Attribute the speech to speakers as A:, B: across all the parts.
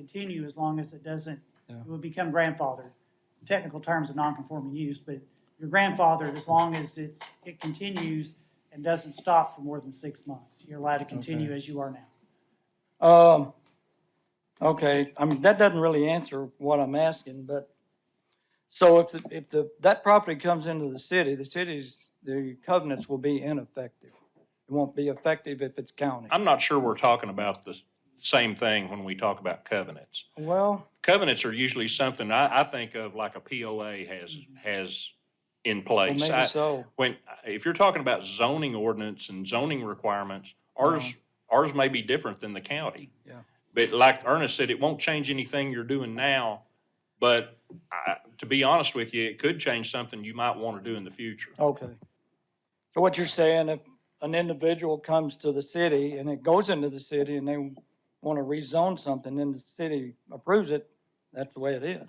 A: continue as long as it doesn't,
B: Yeah.
A: it would become grandfathered. Technical terms of non-conforming use, but your grandfathered as long as it's, it continues and doesn't stop for more than six months. You're allowed to continue as you are now.
B: Um, okay, I mean, that doesn't really answer what I'm asking, but, so if, the if the, that property comes into the city, the city's, the covenants will be ineffective. It won't be effective if it's county.
C: I'm not sure we're talking about the same thing when we talk about covenants.
B: Well,
C: Covenants are usually something I, I think of like a POA has, has in
B: well,
C: place.
B: maybe
C: I-
B: so.
C: When, if you're talking about zoning ordinance and zoning requirements, ours, ours may be different than the county.
B: Uh-huh. Yeah.
C: But like Ernest said, it won't change anything you're doing now, but I, to be honest with you, it could change something you might want to do in the future.
B: Okay. So what you're saying, if an individual comes to the city and it goes into the city and they want to rezone something, then the city approves it, that's the way it is.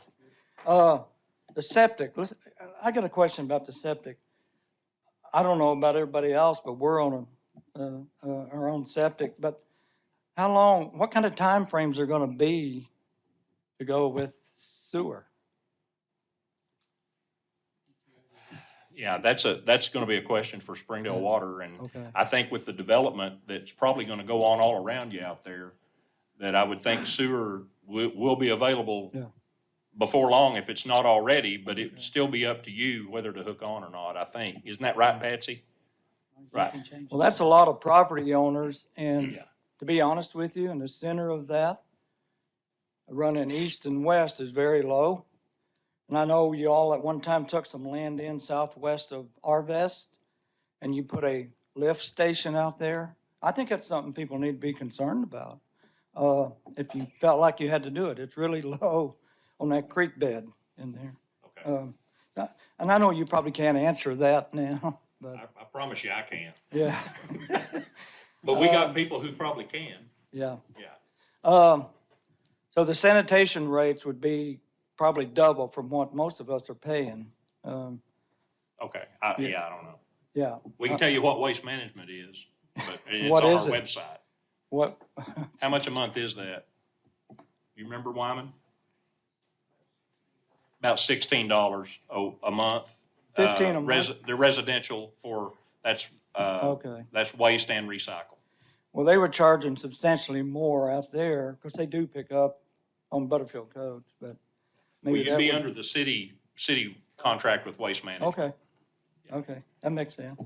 B: Uh, the septic, let's, I got a question about the septic. I don't know about everybody else, but we're on a, uh, uh, our own septic, but how long, what kind of timeframes are gonna be to go with sewer?
C: Yeah, that's a, that's going to be a question for Springdale Water and
B: Okay.
C: I think with the development that's probably going to go on all around you out there, that I would think sewer will, will be
B: Yeah.
C: available before long if it's not already, but it'd still be up to you whether to hook on or not, I think. Isn't that right, Patsy? Right.
A: Nothing changes.
B: Well, that's a lot of property owners, and
C: Yeah.
B: to be honest with you, in the center of that, running east and west is very low. And I know you all at one time took some land in southwest of Arvest, and you put a lift station out there. I think that's something people need to be concerned about, uh, if you felt like you had to do it. It's really low on that creek bed in there.
C: Okay.
B: Um, uh, And I know you probably can't answer that now,
C: I,
B: but,
C: I promise you I can.
B: yeah,
C: But
B: uh,
C: we got people who probably can.
B: yeah.
C: Yeah.
B: Um, so the sanitation rates would be probably double from what most of us are paying. Um,
C: Okay. I, yeah, I don't know.
B: yeah, Uh,
C: We can tell you what waste management is, but it's
B: What
C: on our
B: is it?
C: website.
B: what,
C: How much a month is that? You remember Wyman? About sixteen dollars a, a month. Uh,
B: 15 a month?
C: resi- The residential for, that's, uh,
B: okay.
C: that's waste and recycle.
B: Well, they were charging substantially more out there because they do pick up on Butterfield codes, but
C: Well,
B: maybe
C: you'd
B: that
C: be
B: would.
C: under the city, city contract with waste management.
B: Okay, okay, that makes sense.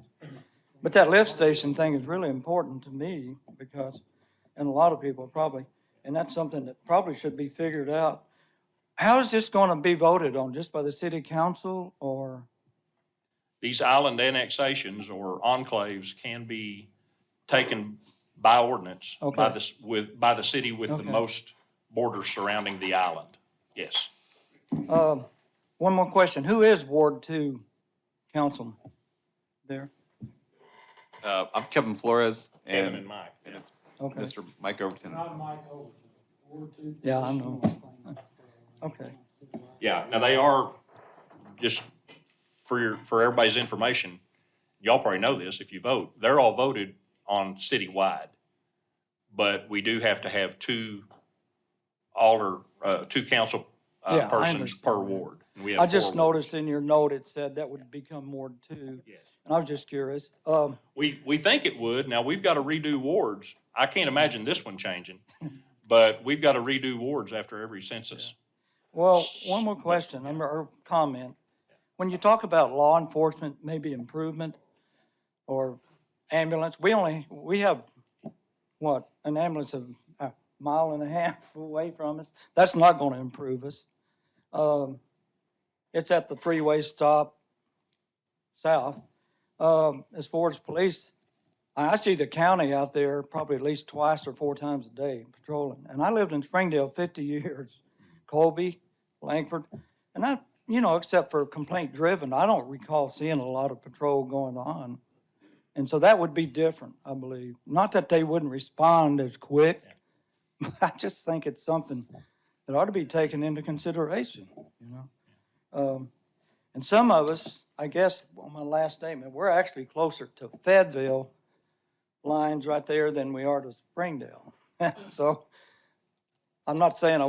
B: But that lift station thing is really important to me because, and a lot of people probably, and that's something that probably should be figured out. How is this going to be voted on? Just by the city council or?
C: These island annexations or enclaves can be taken by ordinance by
B: Okay.
C: the, s- with, by the city with the
B: Okay.
C: most borders surrounding the island. Yes.
B: Um, One more question. Who is Ward Two councilman there?
D: Uh, I'm Kevin Flores
C: Kevin and
D: and
C: Mike. yeah.
B: Okay,
D: Mr. Mike Overton.
A: Not Mike Overton, Ward two.
B: Yeah, I know. okay.
C: Yeah, now they are, just for your, for everybody's information, y'all probably know this if you vote, they're all voted on citywide. But we do have to have two alder, uh, two council,
B: Yeah,
C: uh,
B: I
C: persons per
B: understand that.
C: ward. and we have
B: I just
C: four wards.
B: noticed in your note, it said that would become Ward Two,
C: Yes.
B: and I was just curious. Um,
C: We, we think it would. Now, we've got to redo wards. I can't imagine this one changing. But we've got to redo wards after every census.
B: Well, one more question, um, or comment. When you talk about law enforcement, maybe improvement or ambulance, we only, we have, what, an ambulance a, a mile and a half away from us? That's not going to improve us. Um, it's at the three-way stop south. Um, as far as police, I, I see the county out there probably at least twice or four times a day patrolling. And I lived in Springdale fifty years. Colby, Langford, and I, you know, except for complaint driven, I don't recall seeing a lot of patrol going on. And so that would be different, I believe. Not that they wouldn't respond as quick, but I just think it's something that ought to be taken into consideration, you know? Um, And some of us, I guess, on my last statement, we're actually closer to Fayetteville lines right there than we are to Springdale. So I'm not saying I